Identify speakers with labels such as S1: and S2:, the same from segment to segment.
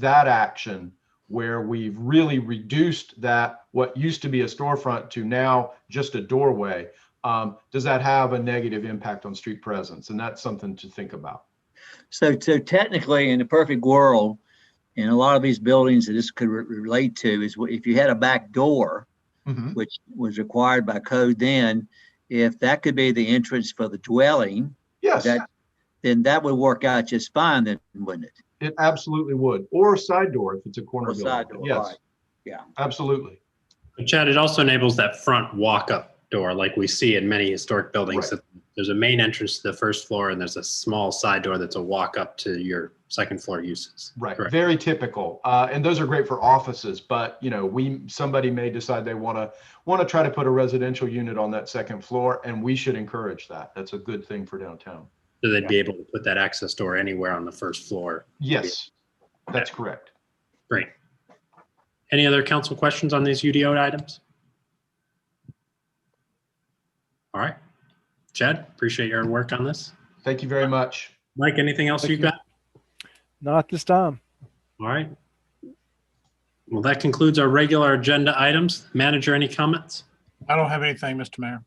S1: that action where we've really reduced that, what used to be a storefront to now just a doorway, um, does that have a negative impact on street presence? And that's something to think about.
S2: So, so technically, in a perfect world, in a lot of these buildings that this could re- relate to is wh- if you had a back door, which was required by code then, if that could be the entrance for the dwelling,
S1: Yes,
S2: that, then that would work out just fine then, wouldn't it?
S1: it absolutely would. Or a side door if it's a corner
S2: Or side
S1: building.
S2: door,
S1: Yes.
S2: right. Yeah.
S1: Absolutely.
S3: But Chad, it also enables that front walk-up door, like we see in many historic buildings. that There's a main entrance to the first floor, and there's a small side door that's a walk-up to your second floor uses.
S1: Right,
S3: Correct.
S1: very typical. Uh, and those are great for offices, but you know, we, somebody may decide they want to, want to try to put a residential unit on that second floor and we should encourage that. That's a good thing for downtown.
S3: So they'd be able to put that access door anywhere on the first floor.
S1: Yes, that's correct.
S3: Great. Any other council questions on these UDO items? All right. Chad, appreciate your work on this.
S1: Thank you very much.
S3: Mike, anything else
S4: Thank
S3: you've
S4: you.
S3: got?
S4: Not this time.
S3: All right. Well, that concludes our regular agenda items. Manager, any comments?
S5: I don't have anything, Mr. Mayor.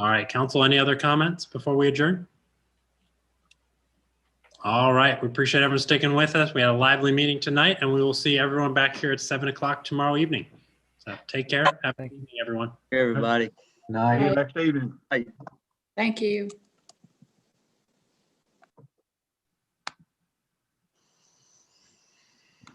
S3: All right, council, any other comments before we adjourn? All right, we appreciate everyone sticking with us. We had a lively meeting tonight, and we will see everyone back here at seven o'clock tomorrow evening. So take care. Have a good
S4: Thank
S3: evening, everyone.
S2: Everybody.
S6: Nice.
S5: Next evening.
S7: Thank you.